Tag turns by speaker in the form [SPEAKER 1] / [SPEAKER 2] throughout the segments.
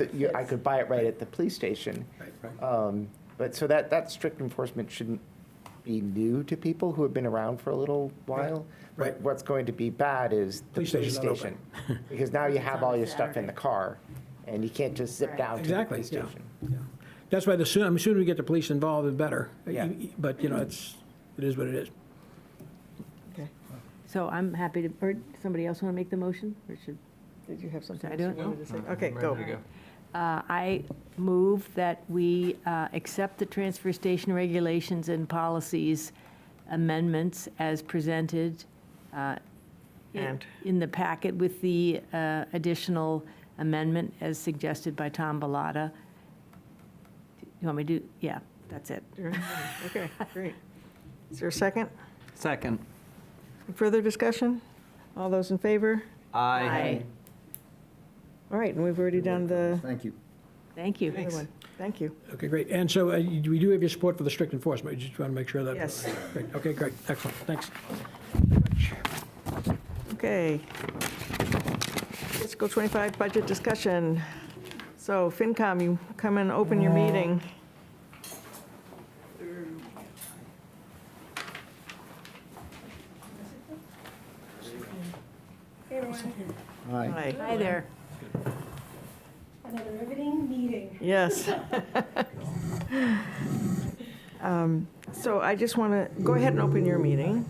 [SPEAKER 1] that you, I could buy it right at the police station. Um, But, so that, that strict enforcement shouldn't be new to people who have been around for a little while.
[SPEAKER 2] Right.
[SPEAKER 1] But what's going to be bad is the
[SPEAKER 2] Police
[SPEAKER 1] police
[SPEAKER 2] station's not
[SPEAKER 1] station. Because now you have all your stuff in the car, and you can't just zip
[SPEAKER 3] Right.
[SPEAKER 1] down to the
[SPEAKER 2] Exactly,
[SPEAKER 1] police
[SPEAKER 2] yeah.
[SPEAKER 1] station.
[SPEAKER 2] Yeah. That's why the sooner, the sooner we get the police involved, the better.
[SPEAKER 1] Yeah.
[SPEAKER 2] But, you know, it's, it is what it is.
[SPEAKER 4] So I'm happy to, or somebody else want to make the motion? Or should,
[SPEAKER 3] Did you have something
[SPEAKER 4] I
[SPEAKER 3] else you
[SPEAKER 4] don't know.
[SPEAKER 3] wanted to say? Okay, go.
[SPEAKER 4] uh, I move that we uh, accept the transfer station regulations and policies amendments as presented uh, i-
[SPEAKER 3] And?
[SPEAKER 4] in the packet with the uh, additional amendment as suggested by Tom Balata. You want me to, do? yeah, that's it.
[SPEAKER 3] Okay, great. Is there a second?
[SPEAKER 5] Second.
[SPEAKER 3] Further discussion? All those in favor?
[SPEAKER 4] Aye.
[SPEAKER 3] All right, and we've already done the
[SPEAKER 6] Thank you.
[SPEAKER 4] Thank you.
[SPEAKER 3] other one. Thank you.
[SPEAKER 2] Okay, great. And so uh, you- we do have your support for the strict enforcement. You just want to make sure that.
[SPEAKER 3] Yes.
[SPEAKER 2] Great. Okay, great. Excellent. Thanks.
[SPEAKER 3] Okay. Fiscal 25 budget discussion. So FinCom, you come and open
[SPEAKER 6] Uh,
[SPEAKER 3] your meeting.
[SPEAKER 6] Hi.
[SPEAKER 3] Hi.
[SPEAKER 4] Hi there.
[SPEAKER 7] Another riveting meeting.
[SPEAKER 3] Yes. Um, So I just want to, go ahead and open your meeting.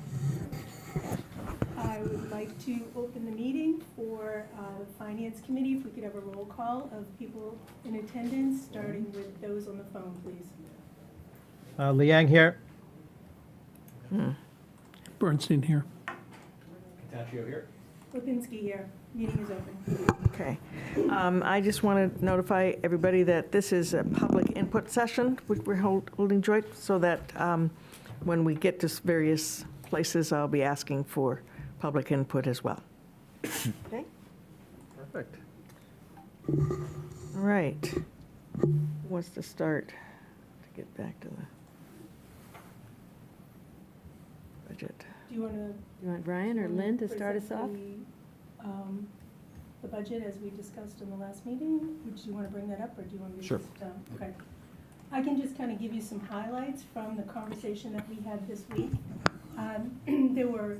[SPEAKER 7] I would like to open the meeting for uh, the Finance Committee. If we could have a roll call of people in attendance, starting with those on the phone, please.
[SPEAKER 8] Uh, Liang here.
[SPEAKER 2] Bernstein here.
[SPEAKER 7] Lipinski here. Meeting is open.
[SPEAKER 3] Okay. Um, I just want to notify everybody that this is a public input session, which we're hold- holding joint, so that um, when we get to s- various places, I'll be asking for public input as well. Okay?
[SPEAKER 5] Perfect.
[SPEAKER 3] All right. Who wants to start to get back to the budget?
[SPEAKER 7] Do you want to?
[SPEAKER 4] You want Brian or Lynn to start us off?
[SPEAKER 7] um, The budget, as we discussed in the last meeting, would you want to bring that up, or do you want me to
[SPEAKER 5] Sure.
[SPEAKER 7] just? um, Okay. I can just kind of give you some highlights from the conversation that we had this week. Um, There were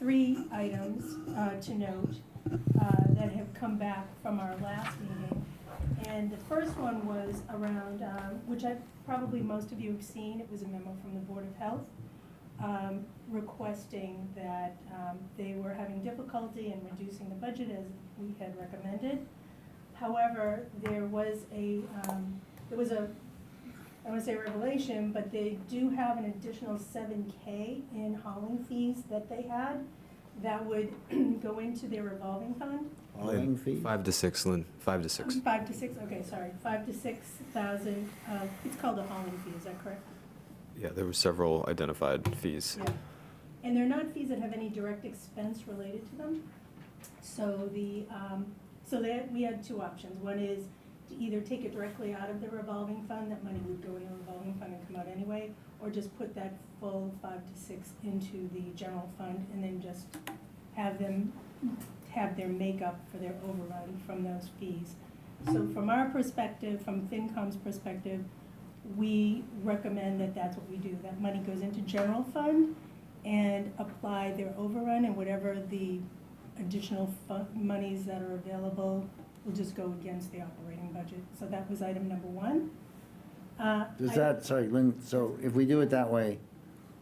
[SPEAKER 7] three items uh, to note uh, that have come back from our last meeting. And the first one was around, um, which I, probably most of you have seen, it was a memo from the Board of Health um, requesting that um, they were having difficulty in reducing the budget as we had recommended. However, there was a, um, there was a, I don't want to say revelation, but they do have an additional seven K in hauling fees that they had that would go into their revolving fund.
[SPEAKER 6] Hauling fee?
[SPEAKER 9] Five to six, Lynn, five to six.
[SPEAKER 7] Five to six, okay, sorry, five to six thousand, uh, it's called a hauling fee, is that correct?
[SPEAKER 9] Yeah, there were several identified fees.
[SPEAKER 7] Yeah, And they're not fees that have any direct expense related to them. So the, um, so that, we had two options. One is to either take it directly out of the revolving fund, that money would go in the revolving fund and come out anyway, or just put that full five to six into the general fund and then just have them, have their makeup for their overrun from those fees. So from our perspective, from FinCom's perspective, we recommend that that's what we do. That money goes into general fund and apply their overrun and whatever the additional fu- monies that are available will just go against the operating budget. So that was item number one. Uh,
[SPEAKER 6] Does
[SPEAKER 7] I-
[SPEAKER 6] that, sorry, Lynn, so if we do it that way,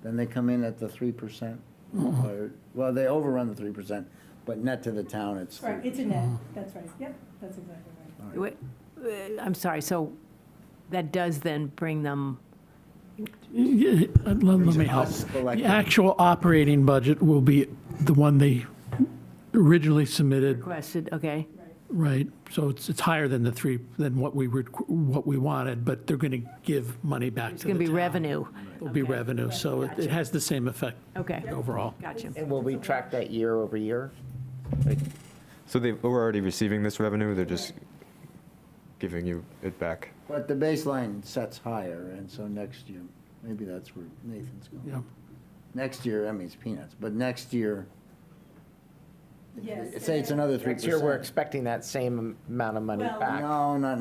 [SPEAKER 6] then they come in at the three percent? Well, they overrun the three percent, but net to the town, it's.
[SPEAKER 7] Right, it's a net, that's right, yep, that's exactly right.
[SPEAKER 4] Wait, uh, I'm sorry, so that does then bring them,
[SPEAKER 10] Yeah, Let let me help.
[SPEAKER 6] Us
[SPEAKER 10] The
[SPEAKER 6] collective.
[SPEAKER 10] actual operating budget will be the one they originally submitted,
[SPEAKER 4] requested, okay?
[SPEAKER 10] right? So it's, it's higher than the three, than what we were, what we wanted, but they're going to give money back to
[SPEAKER 4] It's
[SPEAKER 10] the
[SPEAKER 4] going to be
[SPEAKER 10] town.
[SPEAKER 4] revenue.
[SPEAKER 10] It'll be
[SPEAKER 4] Okay.
[SPEAKER 10] revenue, so it it has the same effect
[SPEAKER 4] Okay,
[SPEAKER 10] overall.
[SPEAKER 4] gotcha.
[SPEAKER 1] And will we track that year over year?
[SPEAKER 9] So they were already receiving this revenue, they're just giving you it back.
[SPEAKER 6] But the baseline sets higher, and so next year, maybe that's where Nathan's
[SPEAKER 10] Yeah.
[SPEAKER 6] going. Next year, I mean, it's peanuts, but next year,
[SPEAKER 7] Yes.
[SPEAKER 6] say it's another three
[SPEAKER 1] Next
[SPEAKER 6] percent.
[SPEAKER 1] year, we're expecting that same amount of money
[SPEAKER 7] Well,
[SPEAKER 1] back.
[SPEAKER 6] No, not